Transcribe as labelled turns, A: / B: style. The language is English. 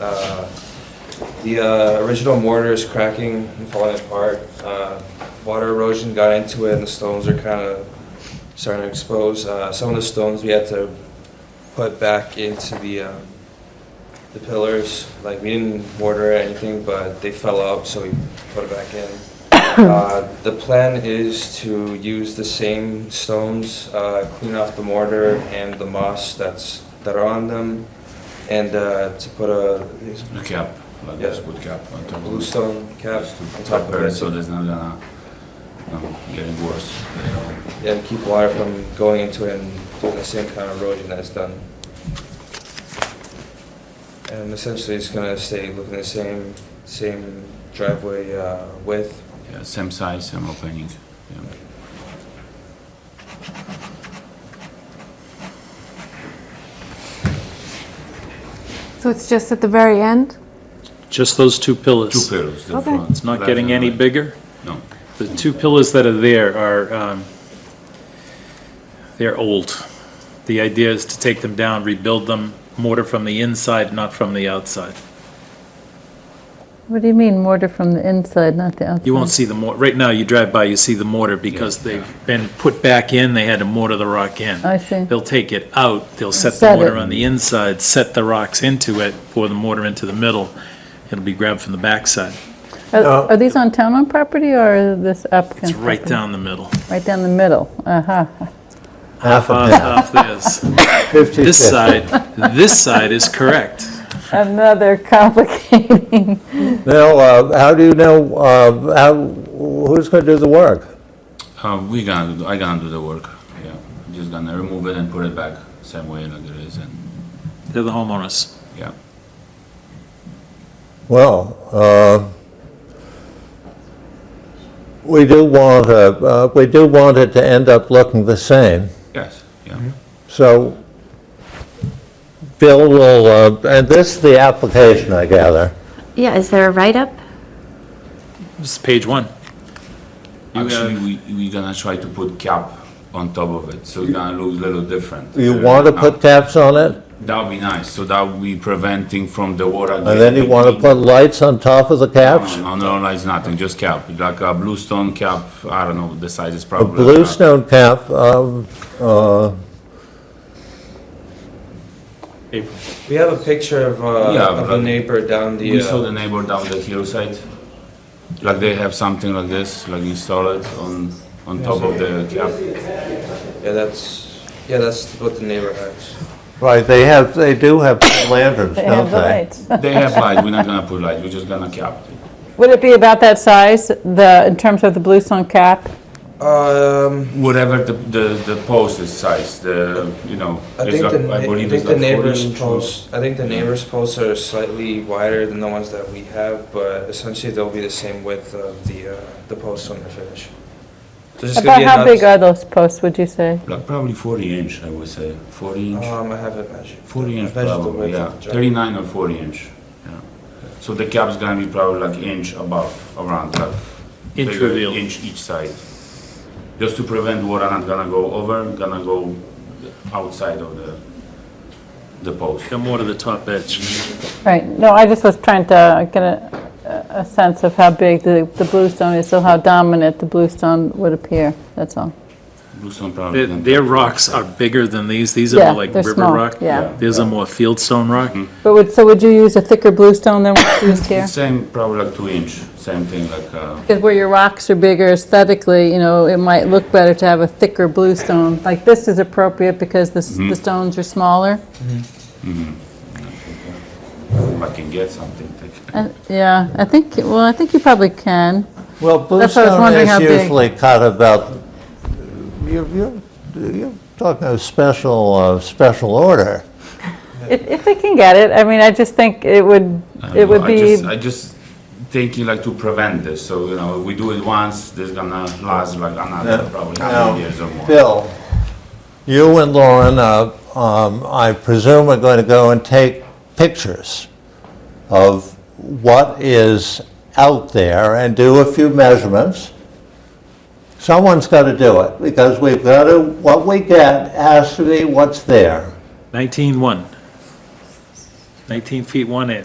A: Uh, The uh, original mortar is cracking and falling apart. Uh, Water erosion got into it, and the stones are kind of starting to expose. Uh, Some of the stones we had to put back into the, um, the pillars. Like, we didn't mortar or anything, but they fell out, so we put it back in. Uh, The plan is to use the same stones, uh, clean off the mortar and the moss that's, that are on them, and uh, to put a
B: The cap, like
A: Yeah.
B: this wood cap on top of it.
A: bluestone cap
B: Just
A: on
B: to
A: top of
B: prepare it so
A: it,
B: there's not gonna, no, getting worse. you know.
A: and keep water from going into it and doing the same kind of erosion that's done. And essentially, it's gonna stay looking the same, same driveway uh, width.
B: Yeah, same size, same opening. yeah.
C: So it's just at the very end?
D: Just those two
B: Two
D: pillars.
B: pillars. the
C: Okay.
B: front,
D: It's not
B: left
D: getting
B: and
D: any
B: right.
D: bigger.
B: No.
D: The two pillars that are there are, um, they're old. The idea is to take them down, rebuild them, mortar from the inside, not from the outside.
E: What do you mean mortar from the inside, not the outside?
D: You won't see the mor, right now, you drive by, you see the mortar because they've been put back in, they had to mortar the rock in.
E: I see.
D: They'll take it out, they'll set the
E: Uh, Set
D: mortar
E: it.
D: on the inside, set the rocks into it, pour the mortar into the middle, it'll be grabbed from the backside.
E: Are are these on town-owned property or this applicant?
D: It's right down the middle.
E: Right down the middle, uh-huh.
F: Half a
D: Off, off this.
F: Fifty
D: This uh,
F: fifty.
D: side, this side is correct.
E: Another complicating,
F: Now, uh, how do you know, uh, how, who's going to do the work?
B: Uh, we gonna, do- I gonna do the work, yeah. Just gonna remove it and put it back same way like it is and,
D: They're the homeowners.
B: yeah.
F: Well, uh, we do want, uh, uh, we do want it to end up looking the same,
B: Yes, yeah.
D: Mm-hmm.
F: so Bill will, uh, and this is the application, I gather.
G: Yeah, is there a write-up?
D: This is page one. You
B: Actually,
D: have,
B: we, we gonna try to put cap on top of it, so it's gonna look a little different.
F: You
B: Uh,
F: want to
B: now.
F: put taps on it,
B: That would be nice, so that would be preventing from the water.
F: and then you want to put lights on top of the taps?
B: No, no, no, it's nothing, just cap, like a bluestone cap, I don't know, the size is
F: A
B: probably. like
F: blue
B: that.
F: stone cap, um, uh,
D: April.
A: We have a picture of,
B: Yeah,
A: uh, of a
B: but-
A: neighbor down the,
B: We saw
A: uh,
B: the neighbor down the hillside, like they have something like this, like installed on, on top of the cap.
A: yeah, that's, yeah, that's what the neighbor has.
F: right, they have, they do have lanterns,
E: they have
F: don't
E: the
F: they?
E: lights.
B: They have light, we're not gonna put light, we're just gonna cap it.
E: Would it be about that size, the, in terms of the bluestone cap?
A: Um,
B: Whatever the, the, the post is size, the, you know,
A: I
B: it's
A: think
B: like,
A: the,
B: I
A: na- I
B: believe
A: think
B: it's
A: the
B: like forty
A: neighbor's
B: inch. or-
A: posts, I think the neighbor's posts are slightly wider than the ones that we have, but essentially they'll be the same width of the, uh, the posts when they're finished. So it's just gonna
E: About
A: be
E: how big
A: another-
E: are those posts, would you say?
B: Like probably forty inch, I would say, forty inch.
A: Um, I haven't measured.
B: 40
A: I've
B: inch
A: measured the
B: probably,
A: width
B: yeah.
A: of the jar.
B: 39 or 40 inch, yeah. So the cap's gonna be probably like inch above, around, like.
D: Inch
B: bigger
D: reveal.
B: Inch each side. Just to prevent water not gonna go over, gonna go outside of the, the post.
D: Come more to the top edge.
E: Right, no, I just was trying to get a, a sense of how big the, the bluestone is, so how dominant the bluestone would appear, that's all.
B: Bluestone probably.
D: Their-
B: can-
D: Their rocks are bigger than these. These
E: Yeah,
D: are more like
E: they're
D: river
E: small,
D: rock.
E: yeah.
D: These are more fieldstone rock.
E: But would, so would you use a thicker bluestone than what's used here?
B: Same, probably like two inch, same thing like, uh,
E: Because where your rocks are bigger aesthetically, you know, it might look better to have a thicker blue stone. Like this is appropriate because the,
B: Mm-hmm.
E: s- the stones are smaller.
B: if I can get something. like-
E: And- Yeah, I think, well, I think you probably can.
F: Well,
E: That's what I was
F: bluestone
E: wondering how
F: is
E: big.
F: usually cut about, you're, you're, you're talking a special, uh, special order.
E: If, if they can get it, I mean, I just think it would,
B: I don't
E: it
B: know,
E: would
B: I
E: be,
B: just- I just thinking like to prevent this, so, you know, if we do it once, this gonna last like another,
F: No,
B: probably
F: no.
B: hundred years or more.
F: Bill, you and Lauren, uh, um, I presume are going to go and take pictures of what is out there and do a few measurements. Someone's got to do it, because we've got to, what we get has to be what's there.
D: 19 one. 19 feet one inch.